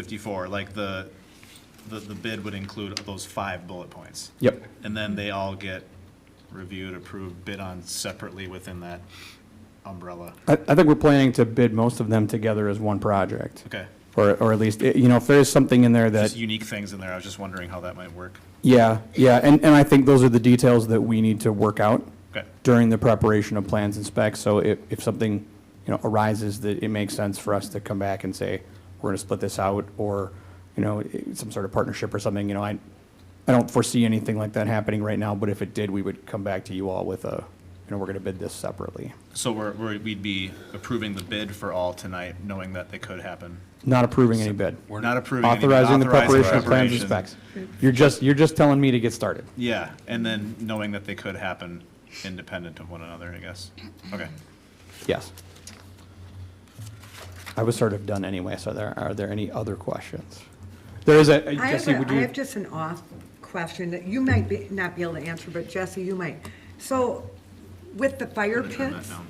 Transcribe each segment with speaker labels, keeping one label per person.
Speaker 1: 54, like the, the, the bid would include those five bullet points.
Speaker 2: Yep.
Speaker 1: And then they all get reviewed, approved, bid on separately within that umbrella.
Speaker 2: I, I think we're planning to bid most of them together as one project.
Speaker 1: Okay.
Speaker 2: Or, or at least, eh, you know, if there's something in there that,
Speaker 1: Just unique things in there. I was just wondering how that might work.
Speaker 2: yeah, yeah, and, and I think those are the details that we need to work out
Speaker 1: Okay.
Speaker 2: during the preparation of plans and specs, so if, if something, you know, arises that it makes sense for us to come back and say, we're gonna split this out, or, you know, eh, some sort of partnership or something, you know, I, I don't foresee anything like that happening right now, but if it did, we would come back to you all with a, you know, we're gonna bid this separately.
Speaker 1: So we're, we're, we'd be approving the bid for all tonight, knowing that they could happen.
Speaker 2: Not approving any bid.
Speaker 1: We're not approving. any bid,
Speaker 2: Authorizing the
Speaker 1: authorizing
Speaker 2: preparation of plans and specs.
Speaker 1: preparation.
Speaker 2: You're just, you're just telling me to get started.
Speaker 1: Yeah, and then knowing that they could happen independent of one another, I guess. Okay.
Speaker 2: Yes. I was sort of done anyway, so there, are there any other questions? There is a,
Speaker 3: I have,
Speaker 2: Jesse, would
Speaker 3: a- I
Speaker 2: you?
Speaker 3: have just an off question that you might be, not be able to answer, but Jesse, you might. So with the fire
Speaker 1: Turn that
Speaker 3: pits,
Speaker 1: down.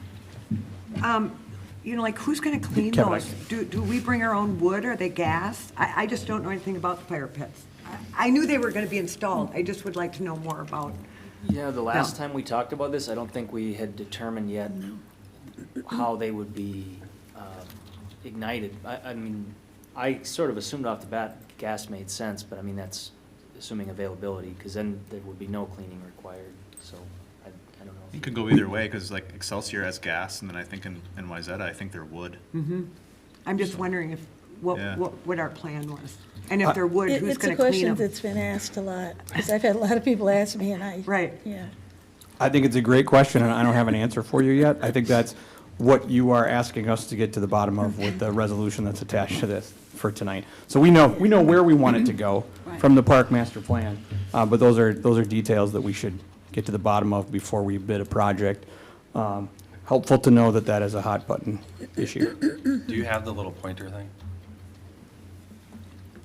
Speaker 3: you know, like who's gonna clean
Speaker 2: Kevin, I
Speaker 3: those? Do, do we bring our own wood? Are they gas? I, I just don't know anything about the fire pits. I- I knew they were gonna be installed. I just would like to know more about.
Speaker 4: Yeah, the last
Speaker 3: No.
Speaker 4: time we talked about this, I don't think we had determined yet how they would be um, ignited. I, I mean, I sort of assumed off the bat gas made sense, but I mean, that's assuming availability, because then there would be no cleaning required, so I, I don't
Speaker 1: It
Speaker 4: know.
Speaker 1: could go either way, because like Excelsior has gas, and then I think in NYZ, I think they're wood.
Speaker 3: I'm just wondering if, what,
Speaker 1: Yeah.
Speaker 3: what, what our plan was. And if they're wood,
Speaker 5: It-
Speaker 3: who's
Speaker 5: It's a
Speaker 3: gonna clean
Speaker 5: question
Speaker 3: them?
Speaker 5: that's been asked a lot, because I've had a lot of people ask me, and I.
Speaker 3: Right.
Speaker 5: Yeah.
Speaker 2: I think it's a great question, and I don't have an answer for you yet. I think that's what you are asking us to get to the bottom of with the resolution that's attached to this for tonight. So we know, we know where we want it to go from the park master plan, uh, but those are, those are details that we should get to the bottom of before we bid a project. Um, Helpful to know that that is a hot button issue.
Speaker 6: Do you have the little pointer thing,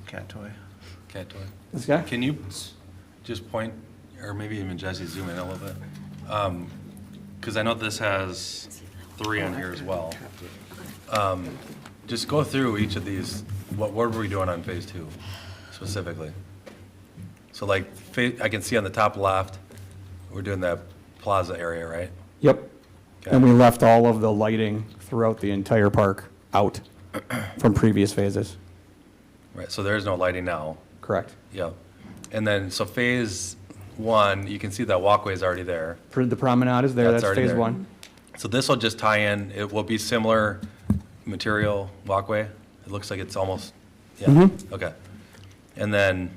Speaker 1: Cat toy.
Speaker 6: cat toy?
Speaker 2: This guy?
Speaker 6: Can you s- just point, or maybe even Jesse zoom in a little bit? Because I know this has three on here as well. Um, Just go through each of these, what, what were we doing on phase two specifically? So like, fa- I can see on the top left, we're doing that plaza area, right?
Speaker 2: Yep. And we left all of the lighting throughout the entire park out from previous phases.
Speaker 6: Right, so there is no lighting now.
Speaker 2: Correct.
Speaker 6: Yeah. And then, so phase one, you can see that walkway is already there.
Speaker 2: For The promenade is there,
Speaker 6: That's
Speaker 2: that's
Speaker 6: already
Speaker 2: phase
Speaker 6: there.
Speaker 2: one.
Speaker 6: So this will just tie in, it will be similar material walkway. It looks like it's almost, yeah, okay. And then,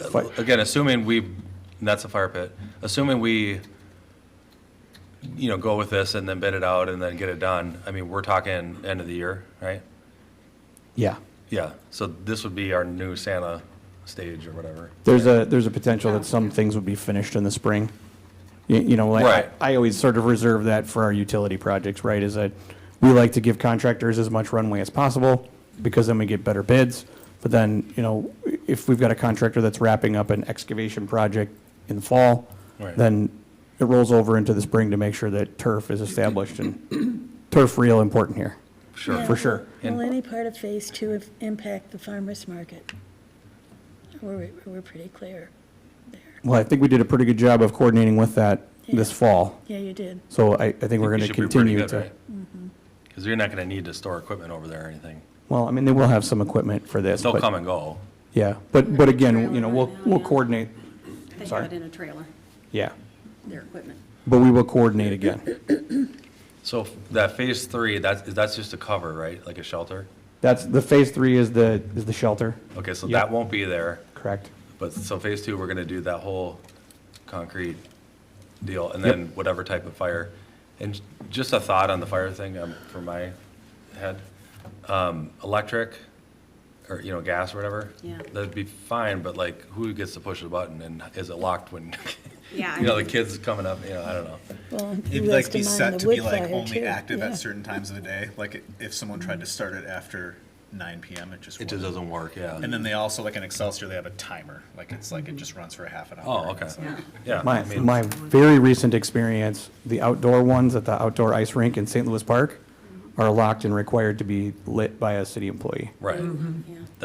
Speaker 6: uh,
Speaker 2: Mm-hmm. Fi-
Speaker 6: again, assuming we, and that's a fire pit, assuming we, you know, go with this and then bid it out and then get it done, I mean, we're talking end of the year, right?
Speaker 2: Yeah.
Speaker 6: Yeah, so this would be our new Santa stage or whatever.
Speaker 2: There's a, there's a potential that some things would be finished in the spring. You, you know, like,
Speaker 6: Right.
Speaker 2: I always sort of reserve that for our utility projects, right? Is that we like to give contractors as much runway as possible because then we get better bids. But then, you know, if we've got a contractor that's wrapping up an excavation project in the fall,
Speaker 6: Right.
Speaker 2: then it rolls over into the spring to make sure that turf is established and turf real important here.
Speaker 6: Sure.
Speaker 2: For sure.
Speaker 5: Will any part of phase two of- impact the farmer's market? We're, we're pretty clear there.
Speaker 2: Well, I think we did a pretty good job of coordinating with that this
Speaker 5: Yeah.
Speaker 2: fall.
Speaker 5: Yeah, you did.
Speaker 2: So I, I think we're going to continue to.
Speaker 6: Because you're not going to need to store equipment over there or anything.
Speaker 2: Well, I mean, they will have some equipment for this.
Speaker 6: They'll
Speaker 2: but-
Speaker 6: come and go.
Speaker 2: Yeah, but, but again,
Speaker 7: Trailer
Speaker 2: you know, we'll,
Speaker 7: right now,
Speaker 2: we'll
Speaker 7: yeah.
Speaker 2: coordinate,
Speaker 7: They
Speaker 2: Sorry.
Speaker 7: have it in a trailer,
Speaker 2: yeah,
Speaker 7: their equipment.
Speaker 2: but we will coordinate again.
Speaker 6: So that phase three, that's, that's just a cover, right? Like a shelter?
Speaker 2: That's, the phase three is the, is the shelter,
Speaker 6: Okay, so
Speaker 2: Yeah.
Speaker 6: that won't be there,
Speaker 2: correct?
Speaker 6: but so phase two, we're going to do that whole concrete deal and then whatever type of fire. And just a thought on the fire thing um, for my head. Um, Electric or, you know, gas or whatever.
Speaker 7: Yeah.
Speaker 6: That'd be fine, but like who gets to push the button and is it locked when,
Speaker 7: Yeah, I
Speaker 6: you know, the
Speaker 7: mean-
Speaker 6: kids coming up, you know, I don't know.
Speaker 5: Well,
Speaker 1: It'd
Speaker 5: who
Speaker 1: like
Speaker 5: has
Speaker 1: be
Speaker 5: to mind
Speaker 1: set
Speaker 5: the
Speaker 1: to be
Speaker 5: wood
Speaker 1: like
Speaker 5: fire,
Speaker 1: only
Speaker 5: too?
Speaker 1: active
Speaker 5: Yeah. Mm.
Speaker 1: at certain times of the day. Like i- if someone tried to start it after 9 p.m., it just
Speaker 6: It
Speaker 1: wouldn't.
Speaker 6: just doesn't work, yeah.
Speaker 1: And then they also like in Excelsior, they have a timer. Like it's like it just runs for half an hour.
Speaker 6: Oh, okay.
Speaker 1: It's like-
Speaker 6: Yeah. I
Speaker 2: My,
Speaker 6: mean-
Speaker 2: my very recent experience, the outdoor ones at the outdoor ice rink in St. Louis Park, are locked and required to be lit by a city employee.
Speaker 6: Right.
Speaker 7: Mm-hmm. yeah.